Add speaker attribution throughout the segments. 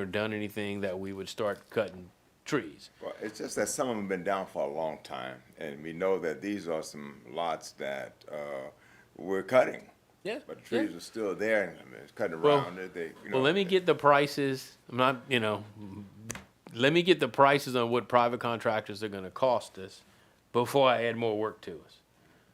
Speaker 1: or done anything that we would start cutting trees.
Speaker 2: Well, it's just that some of them have been down for a long time, and we know that these are some lots that, uh, we're cutting.
Speaker 1: Yeah,
Speaker 2: But the
Speaker 1: yeah.
Speaker 2: trees are still there, and I mean, it's cutting
Speaker 1: Well-
Speaker 2: around it, they, you know.
Speaker 1: Well, let me get the prices, I'm not, you know, let me get the prices on what private contractors are gonna cost us before I add more work to us.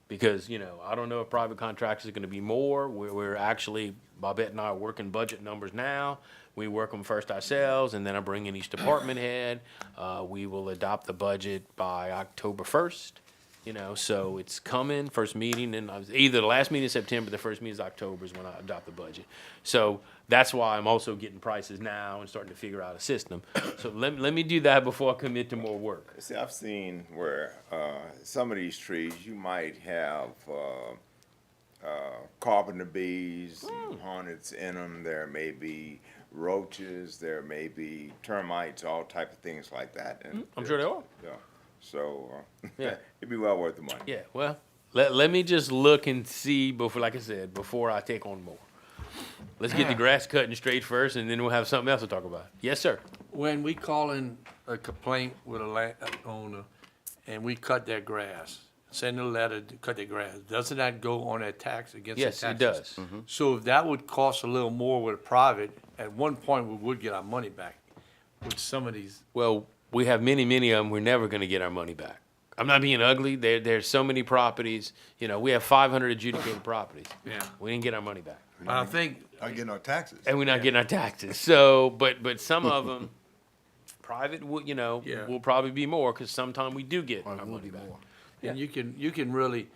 Speaker 1: Because, you know, I don't know if private contractors are gonna be more, we're, we're actually, Bobette and I are working budget numbers now. We work them first ourselves, and then I bring in each department head, uh, we will adopt the budget by October first. You know, so it's coming, first meeting, and I was, either the last meeting in September, the first meeting is October is when I adopt the budget. So that's why I'm also getting prices now and starting to figure out a system. So let, let me do that before I commit to more work.
Speaker 2: See, I've seen where, uh, some of these trees, you might have, uh, uh, carpenter bees,
Speaker 1: Hmm.
Speaker 2: and hornets in them, there may be roaches, there may be termites, all type of things like that. and-
Speaker 1: Hmm, I'm sure they are.
Speaker 2: Yeah, so, uh,
Speaker 1: Yeah.
Speaker 2: it'd be well worth the money.
Speaker 1: Yeah, well, let, let me just look and see before, like I said, before I take on more. Let's get the grass cutting straight first, and then we'll have something else to talk about. Yes, sir.
Speaker 3: When we call in a complaint with a landowner and we cut their grass, send a letter to cut their grass, doesn't that go on their tax against their
Speaker 1: Yes,
Speaker 3: taxes?
Speaker 1: it does.
Speaker 3: So if that would cost a little more with a private, at one point, we would get our money back with some of these.
Speaker 1: Well, we have many, many of them. We're never going to get our money back. I'm not being ugly. There, there's so many properties. You know, we have 500 adjudicated properties.
Speaker 3: Yeah.
Speaker 1: We didn't get our money back,
Speaker 3: I think,
Speaker 4: not getting our taxes.
Speaker 1: and we're not getting our taxes. So, but but some of them, private, will, you know,
Speaker 3: Yeah.
Speaker 1: will probably be more because sometime we do get our money back.
Speaker 3: and you can, you can really,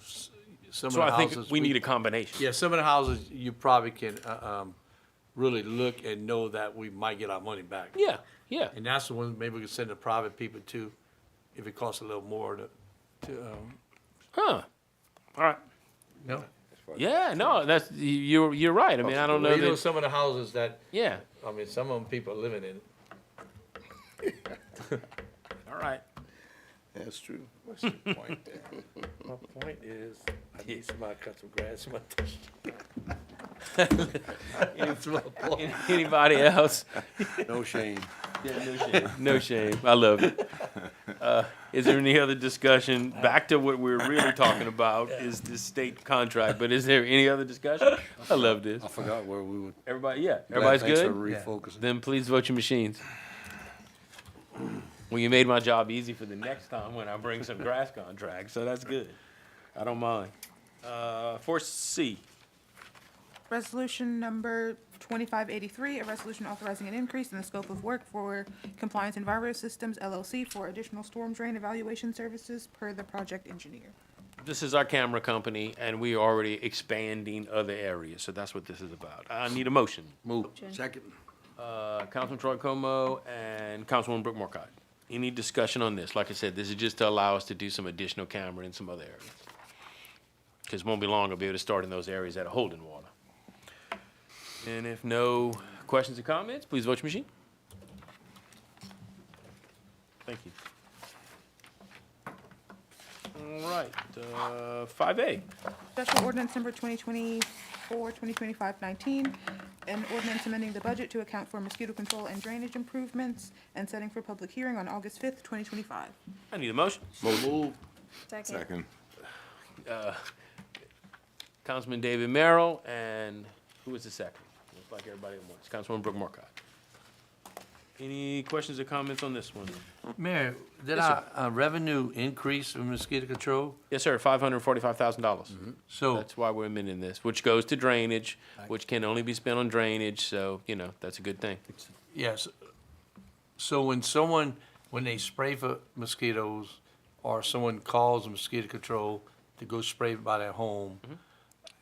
Speaker 3: s- some of
Speaker 1: So
Speaker 3: the
Speaker 1: I
Speaker 3: houses.
Speaker 1: think we need a combination.
Speaker 3: Yeah, some of the houses, you probably can, uh, um, really look and know that we might get our money back.
Speaker 1: Yeah. Yeah.
Speaker 3: And that's the one, maybe we could send the private people to, if it costs a little more to, to, um,
Speaker 1: Huh. All right.
Speaker 3: no.
Speaker 1: Yeah. No, that's you- you're you're right. I mean, I don't know.
Speaker 3: You know,
Speaker 1: That,
Speaker 3: some of the houses that,
Speaker 1: yeah.
Speaker 3: I mean, some of them people are living in.
Speaker 1: All right.
Speaker 4: That's true.
Speaker 2: What's your point there?
Speaker 3: My point is, I need somebody to cut some grass in my
Speaker 1: Any- Anybody else?
Speaker 4: No shame.
Speaker 1: No shame. I love it. Uh, Is there any other discussion? Back to what we're really talking about is this state contract, but is there any other discussion? I love this.
Speaker 4: I forgot where we were.
Speaker 1: Everybody, yeah, everybody's
Speaker 4: Thanks for
Speaker 1: good?
Speaker 4: Refocusing.
Speaker 1: Then please vote your machines. Well, you made my job easy for the next time when I bring some grass contracts, so that's good. I don't mind. Uh, four C,
Speaker 5: Resolution number 2583, a resolution authorizing an increase in the scope of work for Compliance Enviro Systems LLC for additional storm drain evaluation services per the project engineer.
Speaker 1: this is our camera company and we are already expanding other areas, so that's what this is about. I need a motion.
Speaker 4: Move. Second.
Speaker 1: uh, Councilman Troy Como and Councilwoman Brooke Morcott. Any discussion on this? Like I said, this is just to allow us to do some additional camera in some other areas. Because won't be long, I'll be able to start in those areas that are holding water. And if no questions or comments, please vote your machine. Thank you. All right, uh, five A.
Speaker 5: Special ordinance number 2024-2025-19, an ordinance amending the budget to account for mosquito control and drainage improvements and setting for public hearing on August 5th, 2025.
Speaker 1: I need a motion.
Speaker 4: Move.
Speaker 2: Second.
Speaker 1: Councilman David Merrill, and who was the second? Looks like everybody at once. Councilwoman Brooke Markcott. Any questions or comments on this one?
Speaker 3: Mayor, did
Speaker 1: Yes,
Speaker 3: our
Speaker 1: sir.
Speaker 3: uh, revenue increase from mosquito control?
Speaker 1: Yes, sir, five hundred and forty-five thousand dollars.
Speaker 3: So,
Speaker 1: That's why we're amending this, which goes to drainage, which can only be spent on drainage, so, you know, that's a good thing.
Speaker 3: yes, so when someone, when they spray for mosquitoes, or someone calls mosquito control to go spray by their home,
Speaker 1: Mm-hmm.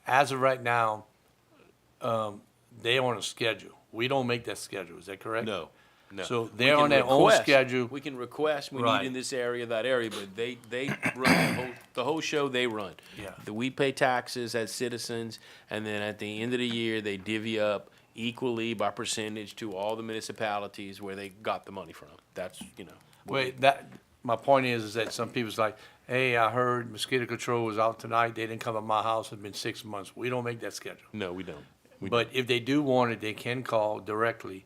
Speaker 3: as of right now, um, they're on a schedule. We don't make that schedule, is that correct?
Speaker 1: no.
Speaker 3: So
Speaker 1: We
Speaker 3: they're
Speaker 1: can
Speaker 3: on their own
Speaker 1: request-
Speaker 3: schedule.
Speaker 1: We can request, we need
Speaker 3: Right.
Speaker 1: in this area, that area, but they, they run, the whole, the whole show they run.
Speaker 3: Yeah.
Speaker 1: The- We pay taxes as citizens, and then at the end of the year, they divvy up equally by percentage to all the municipalities where they got the money from. That's, you know,
Speaker 3: Wait, that, my point is, is that some people's like, hey, I heard mosquito control was out tonight, they didn't come to my house, it's been six months. We don't make that schedule.
Speaker 1: no, we don't. We
Speaker 3: But if they do want it, they can call directly.